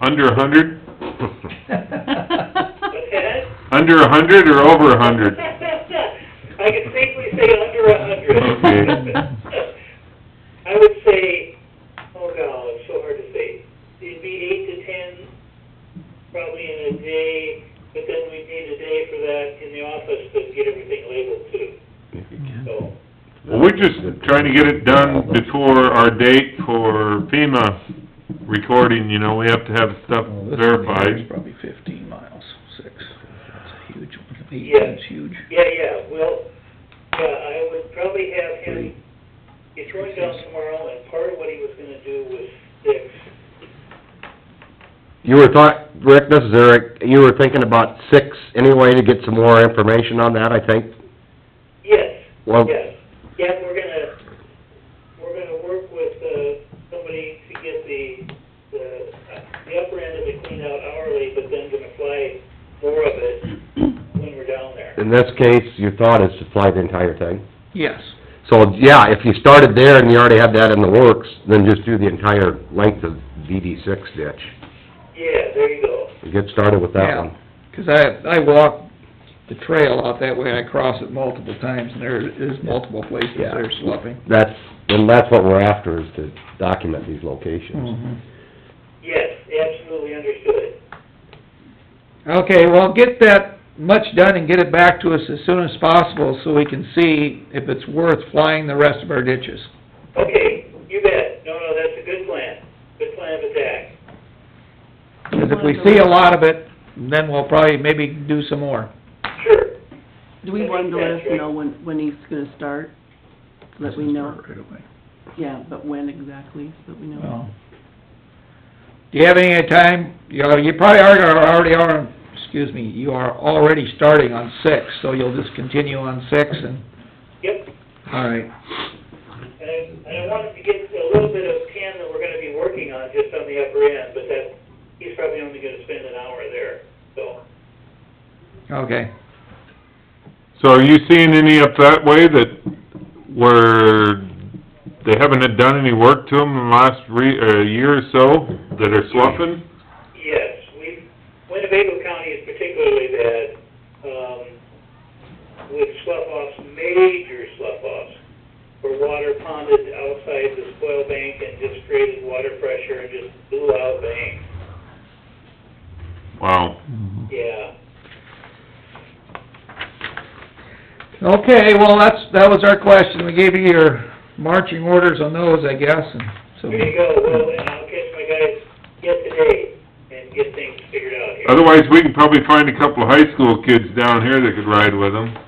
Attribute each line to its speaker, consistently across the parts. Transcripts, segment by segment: Speaker 1: Under a hundred?
Speaker 2: What's that?
Speaker 1: Under a hundred or over a hundred?
Speaker 2: I could safely say under a hundred.
Speaker 1: Okay.
Speaker 2: I would say, oh god, it's so hard to say, it'd be eight to ten, probably in a day, but then we'd need a day for that in the office to get everything labeled too, so.
Speaker 1: Well, we're just trying to get it done before our date for FEMA recording, you know, we have to have stuff
Speaker 3: Well, Oh, this one here is
Speaker 1: verified.
Speaker 3: Probably fifteen miles, six, that's a huge one,
Speaker 2: Yeah.
Speaker 3: eighteen's huge.
Speaker 2: Yeah, yeah, well, yeah, I would probably have him, he's going down tomorrow, and part of what he was gonna do was fix,
Speaker 4: You were thought, Rick, this is Eric, you were thinking about six anyway to get some more information on that, I think?
Speaker 2: yes,
Speaker 4: Well,
Speaker 2: yes. Yeah, we're gonna, we're gonna work with, uh, somebody to get the, the, the upper end of it cleaned out hourly, but then gonna fly more of it when we're down there.
Speaker 4: in this case, your thought is to fly the entire thing.
Speaker 3: Yes,
Speaker 4: So, yeah, if you started there and you already had that in the works, then just do the entire length of DD six ditch.
Speaker 2: Yeah, there you go.
Speaker 4: Get started with that
Speaker 3: Yeah.
Speaker 4: one.
Speaker 3: 'cause I, I walk the trail out that way, I cross it multiple times, and there is multiple places
Speaker 4: Yeah.
Speaker 3: there's sloughing.
Speaker 4: That's, and that's what we're after, is to document these locations.
Speaker 3: Mhm.
Speaker 2: Yes, absolutely understood.
Speaker 3: Okay, well, get that much done and get it back to us as soon as possible, so we can see if it's worth flying the rest of our ditches.
Speaker 2: Okay, you bet. No, no, that's a good plan. Good plan of attack.
Speaker 3: 'Cause if we see a lot of it, then we'll probably maybe do some more.
Speaker 2: Sure.
Speaker 5: Do we want the list to know when, when he's gonna start? So That we know,
Speaker 3: Right away.
Speaker 5: yeah, but when exactly, so that we know.
Speaker 3: Well, Do you have any time, you know, you probably are, are already are, excuse me, you are already starting on six, so you'll just continue on six and,
Speaker 2: Yep,
Speaker 3: all right.
Speaker 2: and I, and I wanted to get a little bit of Ken that we're gonna be working on just on the upper end, but that, he's probably only gonna spend an hour there, so.
Speaker 3: Okay,
Speaker 1: So are you seeing any up that way that where they haven't done any work to them in the last re, or year or so, that are sloughing?
Speaker 2: Yes, we've, Winnebago County is particularly bad, um, with slough offs, major slough offs, where water ponded outside the spoil bank and just created water pressure and just blew out banks.
Speaker 1: Wow.
Speaker 2: Yeah,
Speaker 3: okay, well, that's, that was our question, we gave you your marching orders on those, I guess, and so.
Speaker 2: there you go, well, and I'll catch my guys yet today and get things figured out here.
Speaker 1: Otherwise, we can probably find a couple of high school kids down here that could ride with them.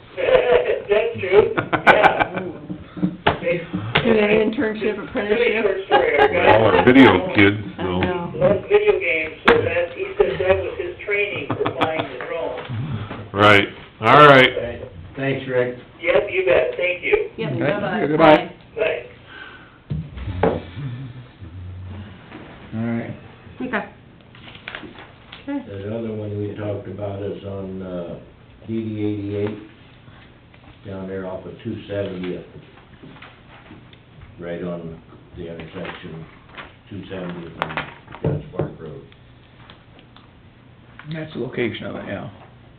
Speaker 2: That's true, yeah. They-
Speaker 5: Do they internship
Speaker 2: Really short
Speaker 5: apprenticeship?
Speaker 2: story, our guy.
Speaker 1: All our video kids,
Speaker 5: I
Speaker 1: so.
Speaker 5: know.
Speaker 2: Loves video games, so that, he says that was his training for flying the drone.
Speaker 1: Right, all right.
Speaker 6: Thanks, Rick.
Speaker 2: Yep, you bet, thank you,
Speaker 5: Yep,
Speaker 3: Okay,
Speaker 5: bye-bye.
Speaker 3: goodbye.
Speaker 2: bye.
Speaker 3: All right,
Speaker 5: Okay. Okay.
Speaker 6: That other one we talked about is on, uh, DD eighty-eight, down there off of two seventy, right on the intersection, two seventy and Dutch Park Road.
Speaker 3: that's the location of it, yeah.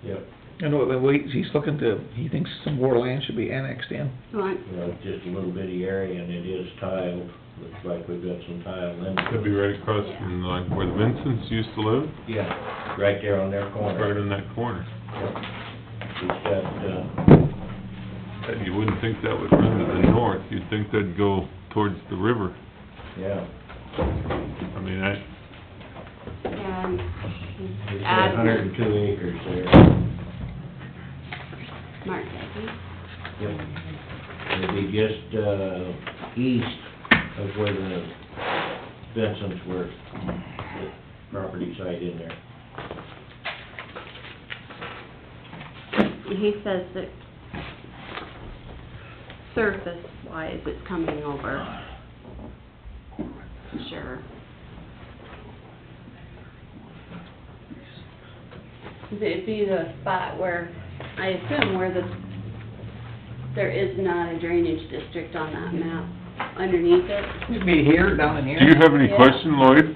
Speaker 6: Yep.
Speaker 3: And wait, wait, he's looking to, he thinks some more land should be annexed in.
Speaker 5: All right.
Speaker 6: You know, just a little bitty area and it is tiled, looks like we've got some tile in
Speaker 1: That'd
Speaker 6: it.
Speaker 1: be right across from like where the Vincents used to live,
Speaker 6: Yeah, right there on their
Speaker 1: right
Speaker 6: corner.
Speaker 1: in that corner.
Speaker 6: It's got, uh,
Speaker 1: You wouldn't think that would run to the north, you'd think that'd go towards the river.
Speaker 6: yeah.
Speaker 1: I mean, I,
Speaker 7: And
Speaker 6: It's got
Speaker 7: add
Speaker 6: hundred and two acres there.
Speaker 7: Mark Dyke.
Speaker 6: Yep. It'd be just, uh, east of where the Benson's were, the property site in there.
Speaker 7: And he says that surface wise, it's coming over. Sure. It'd be the spot where, I assume where the, there is not a drainage district on that map underneath it.
Speaker 3: It'd be here, down in here.
Speaker 1: do you have any
Speaker 7: Yeah.
Speaker 1: question, Lloyd?